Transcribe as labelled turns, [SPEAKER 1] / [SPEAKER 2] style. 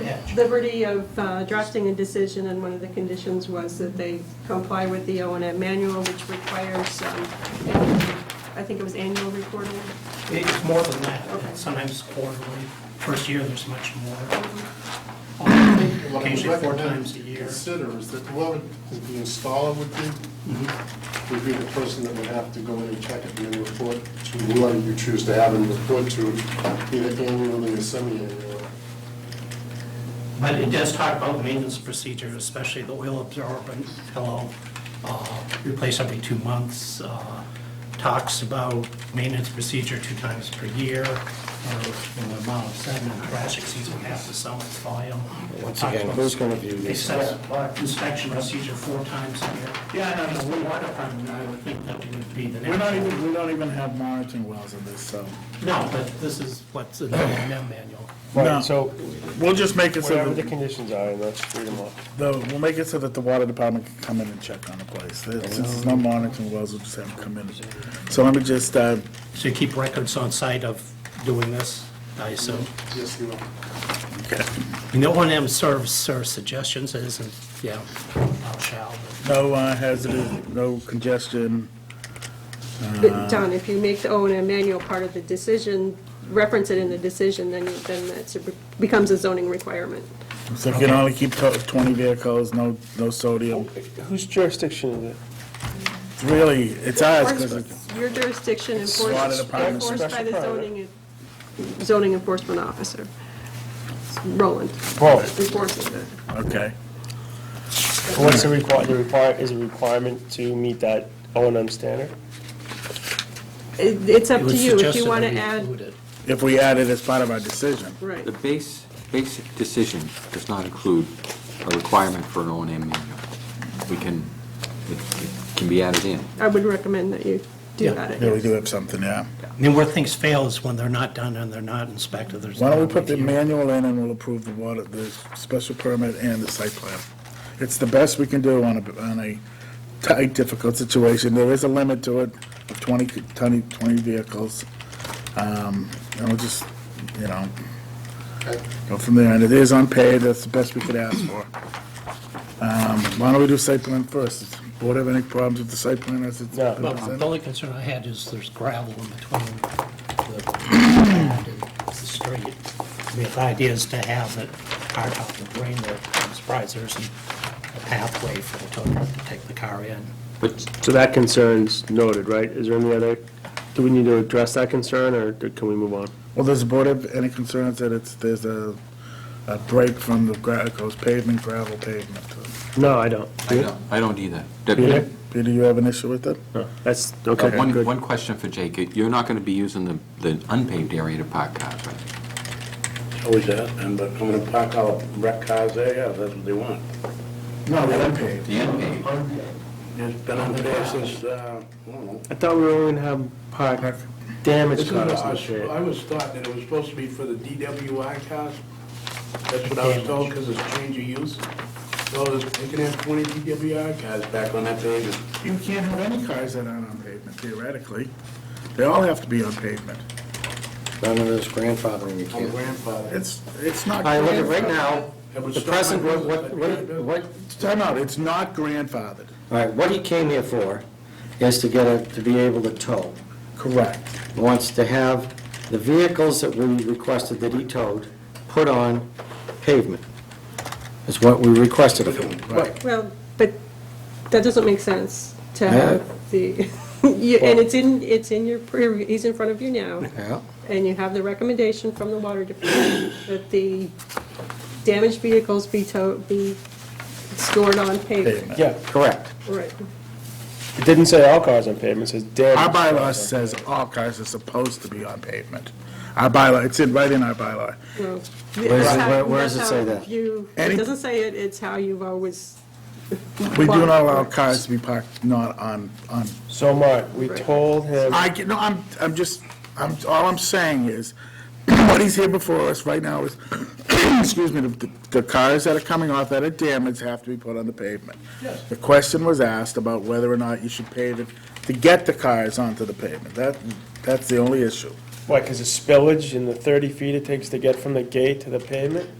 [SPEAKER 1] catch.
[SPEAKER 2] liberty of uh, drafting a decision, and one of the conditions was that they comply with the O and M manual, which requires, um, I think it was annual reporting.
[SPEAKER 1] It's more than that,
[SPEAKER 2] Okay.
[SPEAKER 1] sometimes quarterly. First year, there's much more.
[SPEAKER 3] What I would
[SPEAKER 1] Occasionally four
[SPEAKER 3] recommend
[SPEAKER 1] times a year.
[SPEAKER 3] Consider is that whoever the installer would be,
[SPEAKER 1] Mm-hmm.
[SPEAKER 3] would be the person that would have to go in and check it and then report to whoever you choose to have and report to, either annually or semi-annually.
[SPEAKER 1] But it does talk about maintenance procedures, especially the oil absorbent pillow, uh, replace every two months. uh, Talks about maintenance procedure two times per year, or in the amount of seven, and trash exceeds one half the summit's volume.
[SPEAKER 4] Once
[SPEAKER 1] Talks
[SPEAKER 4] again,
[SPEAKER 1] about-
[SPEAKER 4] who's gonna view
[SPEAKER 1] They
[SPEAKER 4] this?
[SPEAKER 1] set up uh, inspection procedure four times a year. Yeah, I know, the water department, I would think that would be the next.
[SPEAKER 5] We don't even, we don't even have monitoring wells in this, so.
[SPEAKER 1] No, but this is what's in the M manual.
[SPEAKER 5] No.
[SPEAKER 4] Right, so
[SPEAKER 5] We'll just make it so
[SPEAKER 4] whatever the
[SPEAKER 5] that,
[SPEAKER 4] conditions are, let's read them off.
[SPEAKER 5] the- we'll make it so that the water department can come in and check on the place. Since there's no monitoring wells, we'll just have them come in. So let me just, uh,
[SPEAKER 1] So you keep records on site of doing this, I assume?
[SPEAKER 3] Yes, you are.
[SPEAKER 1] And the one M serves, serves suggestions, it isn't, yeah, not shall, but
[SPEAKER 5] no uh, hazardous, no congestion.
[SPEAKER 2] Don, if you make the O and M manual part of the decision, reference it in the decision, then, you- then that's, a- becomes a zoning requirement.
[SPEAKER 5] So you can only keep to- twenty vehicles, no, no sodium.
[SPEAKER 4] Whose jurisdiction is it?
[SPEAKER 5] It's Really, it's ours, because it's
[SPEAKER 2] Your jurisdiction
[SPEAKER 5] Water
[SPEAKER 2] enforced,
[SPEAKER 5] Department
[SPEAKER 2] enforced by the
[SPEAKER 4] special permit.
[SPEAKER 2] zoning, zoning enforcement officer. Roland
[SPEAKER 4] Well,
[SPEAKER 2] enforces it.
[SPEAKER 5] okay.
[SPEAKER 4] what's the require, the require, is a requirement to meet that O and M standard?
[SPEAKER 2] It- It's up
[SPEAKER 1] it
[SPEAKER 2] to
[SPEAKER 1] was
[SPEAKER 2] you, if
[SPEAKER 1] suggested
[SPEAKER 2] you want to
[SPEAKER 1] that we
[SPEAKER 2] add,
[SPEAKER 1] include it.
[SPEAKER 5] If we add it as part of our decision.
[SPEAKER 2] right.
[SPEAKER 6] The base, basic decision does not include a requirement for an O and M manual. We can, it it can be added in.
[SPEAKER 2] I would recommend that you do
[SPEAKER 1] Yeah.
[SPEAKER 2] that.
[SPEAKER 5] Yeah, we do have something, yeah.
[SPEAKER 1] I mean, where things fail is when they're not done and they're not inspected, there's.
[SPEAKER 5] Why don't we
[SPEAKER 1] no
[SPEAKER 5] put the
[SPEAKER 1] review.
[SPEAKER 5] manual in and we'll approve the water, the special permit and the site plan? It's the best we can do on a, on a tight, difficult situation. There is a limit to it, of 20 20 20 vehicles. Um, And we'll just, you know, go from there. And it is unpaid, that's the best we could ask for. Um, Why don't we do site plan first? Does the Board have any problems with the site plan as it's
[SPEAKER 4] No.
[SPEAKER 5] been
[SPEAKER 1] Well, the
[SPEAKER 5] presented?
[SPEAKER 1] only concern I had is there's gravel in between the pad and the street. I mean, if the idea is to have it hard out the green there, I'm surprised there isn't a pathway for the tow truck to take the car in.
[SPEAKER 6] But
[SPEAKER 4] So that concern's noted, right? Is there any other, do we need to address that concern, or can we move on?
[SPEAKER 5] Well, does the board have any concerns that it's, there's a, a break from the, gra- it goes pavement, gravel pavement?
[SPEAKER 4] No, I don't.
[SPEAKER 6] I don't, I don't either.
[SPEAKER 4] Yeah.
[SPEAKER 6] Deputy,
[SPEAKER 5] Peter, you have an issue with it?
[SPEAKER 4] That's,
[SPEAKER 6] uh,
[SPEAKER 4] okay,
[SPEAKER 6] one,
[SPEAKER 4] good.
[SPEAKER 6] one question for Jake. You're not going to be using the, the unpaved area to park cars, right?
[SPEAKER 7] Always that, and but I'm gonna park all wreck cars there, yeah, that's what they want.
[SPEAKER 5] No, the unpaved.
[SPEAKER 6] The unpaved.
[SPEAKER 7] It's been unfair since, uh, I don't know.
[SPEAKER 4] I thought we were only gonna have park damage
[SPEAKER 7] This is
[SPEAKER 4] cars
[SPEAKER 7] what I
[SPEAKER 4] and
[SPEAKER 7] was-
[SPEAKER 4] shit.
[SPEAKER 7] I was taught that it was supposed to be for the DWI cars. That's what I was told, because it's change of use. So there's- they can have twenty DWI cars back on that pavement.
[SPEAKER 5] You can't have any cars that aren't on pavement theoretically. They all have to be on pavement.
[SPEAKER 8] None of this grandfathering, you
[SPEAKER 7] I'm
[SPEAKER 8] can't.
[SPEAKER 7] grandfathered.
[SPEAKER 5] It's, it's not.
[SPEAKER 4] I look at right now,
[SPEAKER 7] It was
[SPEAKER 8] The
[SPEAKER 7] something I
[SPEAKER 8] present, what,
[SPEAKER 7] wasn't-
[SPEAKER 8] what, what, what-
[SPEAKER 5] Time out, it's not grandfathered.
[SPEAKER 8] all right, what he came here for is to get it, to be able to tow.
[SPEAKER 5] Correct.
[SPEAKER 8] He Wants to have the vehicles that we requested that he towed put on pavement. Is what we requested of him.
[SPEAKER 5] Right.
[SPEAKER 2] Well, but that doesn't make sense to have the, you- and it's in, it's in your, pre- he's in front of you now,
[SPEAKER 8] Yeah.
[SPEAKER 2] and you have the recommendation from the water department that the damaged vehicles be towed, be stored on pavement.
[SPEAKER 5] Pavement.
[SPEAKER 4] yeah,
[SPEAKER 8] Correct.
[SPEAKER 2] Right.
[SPEAKER 4] it didn't say all cars on pavement, it says damage.
[SPEAKER 5] Our bylaw says all cars are supposed to be on pavement. Our bylaw, it's in, right in our bylaw.
[SPEAKER 2] Where
[SPEAKER 8] Where's it- where- where does it say that?
[SPEAKER 2] It doesn't say it, it's how you've always.
[SPEAKER 5] We do not allow cars to be parked not on, on
[SPEAKER 4] So, Mark, we told him,
[SPEAKER 5] I, get- no, I'm, I'm just, I'm, all I'm saying is, what he's here before us right now is, excuse me, the, the cars that are coming off that are damaged have to be put on the pavement.
[SPEAKER 7] Yes.
[SPEAKER 5] The question was asked about whether or not you should pave it to get the cars onto the pavement. That, that's the only issue.
[SPEAKER 4] what, because of spillage in the 30 feet it takes to get from the gate to the pavement?